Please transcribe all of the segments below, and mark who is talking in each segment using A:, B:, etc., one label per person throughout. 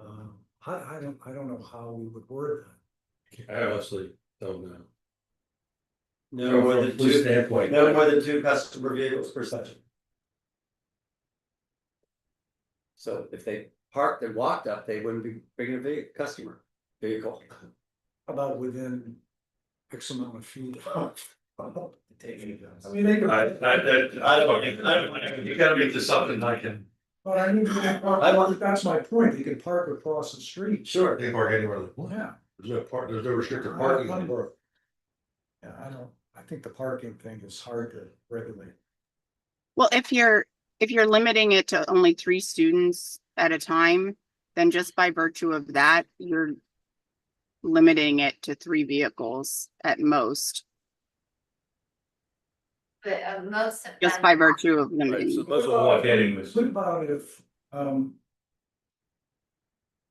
A: Um, I, I don't, I don't know how we would word
B: I honestly don't know.
C: No more
B: From a
C: than
B: police
C: two,
B: standpoint.
C: no more than two customer vehicles per session. So if they parked and walked up, they wouldn't be bringing a vehi- customer vehicle.
A: that, about within X amount of feet. I mean,
B: I, I, that, I don't, I don't, you gotta make this something I can.
A: But I mean, you can
C: I
A: park-
C: want-
A: that's my point, you can park across the street.
C: Sure.
B: They park anywhere,
A: Yeah.
B: there's no park, there's no restricted
A: I don't- Yeah, I don't, I think the parking thing is hard to regulate.
D: Well, if you're, if you're limiting it to only three students at a time, then just by virtue of that, you're limiting it to three vehicles at most,
E: But uh, most of.
D: just
E: them-
D: by virtue of limiting.
B: Most of what I'm getting is-
A: What about if, um.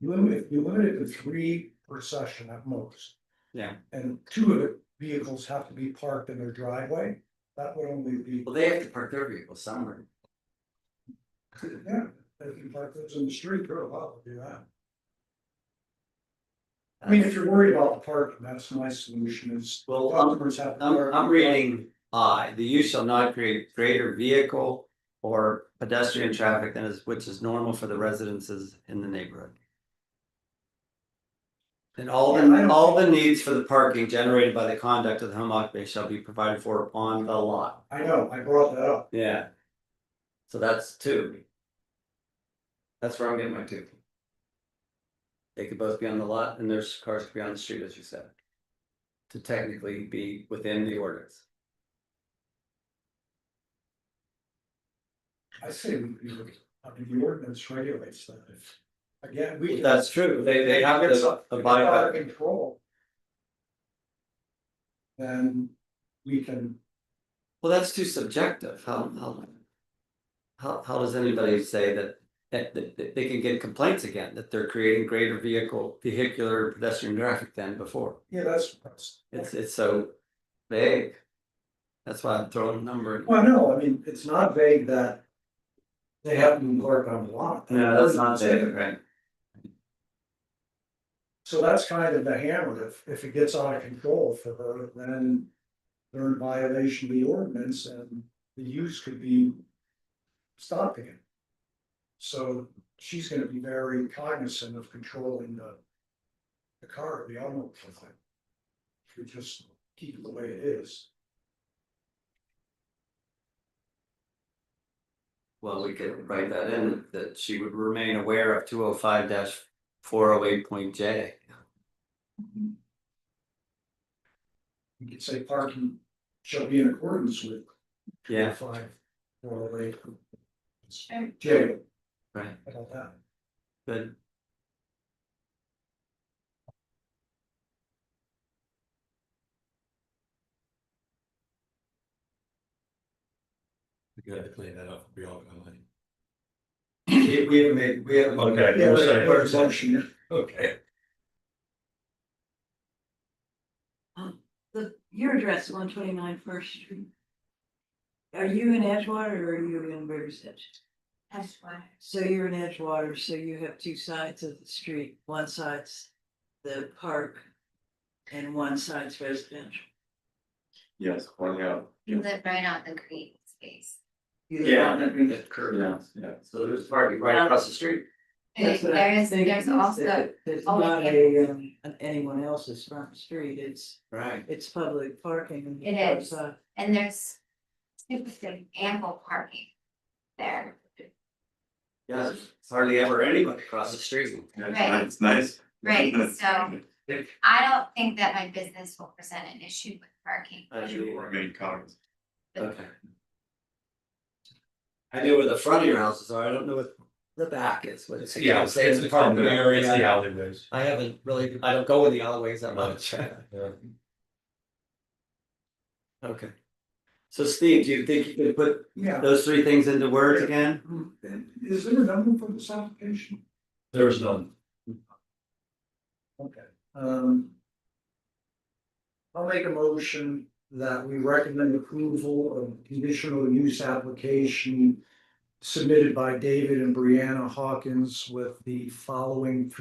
A: You limit, you limit it to three per session at most.
C: Yeah.
A: And two of the vehicles have to be parked in their driveway, that would only be,
C: Well, they have to park their vehicle somewhere.
A: yeah, if you park those in the street, you're allowed to do that. I mean, if you're worried about the parking, that's my solution is.
C: Well, um, I'm-
A: customers have to
C: I'm,
A: park-
C: I'm reading, I, the use shall not create greater vehicle or pedestrian traffic than is, which is normal for the residences in the neighborhood. And all
A: Yeah, I
C: the,
A: don't-
C: all the needs for the parking generated by the conduct of the home occupation shall be provided for on the lot.
A: I know, I brought that up.
C: Yeah. So that's two. That's where I'm getting my two. They could both be on the lot and their cars could be on the street, as you said. To technically be within the ordinance.
A: I say, we, we- I mean, the ordinance regulates that. If- Again, we.
C: That's true, they, they have
A: It's
C: to
A: up- if it's
C: abide
A: out of
C: by,
A: Control. Then we can,
C: well, that's too subjective, how, how. How, how does anybody say that, that, that, that they can get complaints again, that they're creating greater vehicle, vehicular pedestrian traffic than before?
A: yeah, that's, that's,
C: It's, it's so vague. That's why I'm throwing a number. in.
A: well, no, I mean, it's not vague that. They haven't been worked on a lot.
C: No, that's not vague, right?
A: So that's kind of the hammer, if, if it gets out of control for her, then. They're in violation of the ordinance and the use could be. Stopping it. So she's gonna be very cognizant of controlling the. The car, the automobile thing. If you just keep it the way it is,
C: Well, we could write that in, that she would remain aware of two oh five four oh eight point J.
A: you could say parking shall be in accordance with.
C: Yeah,
A: Five, four, oh, eight.
E: Sure.
A: Jay,
C: right,
A: how about that?
C: good.
B: You gotta clean that up, we all gonna like.
C: We we haven't made, we haven't.
B: Okay.
A: Yeah,
B: we'll
A: but-
B: say-
A: but it's motion.
B: Okay.
F: The, your address, one twenty-nine First Street. Are you in Edgewater or are you in Riverside?
E: That's why.
F: So you're in Edgewater, so you have two sides of the street, one side's the park. And one side's residential.
G: Yes, one out.
E: You live right on the green space.
F: You live
C: Yeah,
F: on
C: that
F: it.
C: means it's curved now,
G: Yeah.
C: so there's parking right across the street.
E: There
F: That's what I'm
E: is,
F: thinking
E: there's
F: is
E: also,
F: that There's
E: always
F: not a, um, an- anyone else's front street, it's,
C: Right.
F: it's public parking. on the
E: It
F: front
E: is.
F: side.
E: and there's typically ample parking there.
C: Yeah, it's hardly ever anybody across the street.
E: Right.
G: It's nice.
E: Right, so- I don't think that my business will present an issue with parking.
C: I do.
G: Remain cognizant.
C: Okay. I know where the front of your houses are, I don't know what the back is, what it's.
B: Yeah, it's, it's the common area, it's the alleyways.
C: I haven't really, I don't go in the alleyways that much.
B: Yeah.
C: Okay. So Steve, do you think you could put
A: Yeah,
C: those three things into words again?
A: is there a number for this application?
B: There's none.
A: Okay, um. I'll make a motion that we recommend approval of conditional use application. Submitted by David and Brianna Hawkins with the following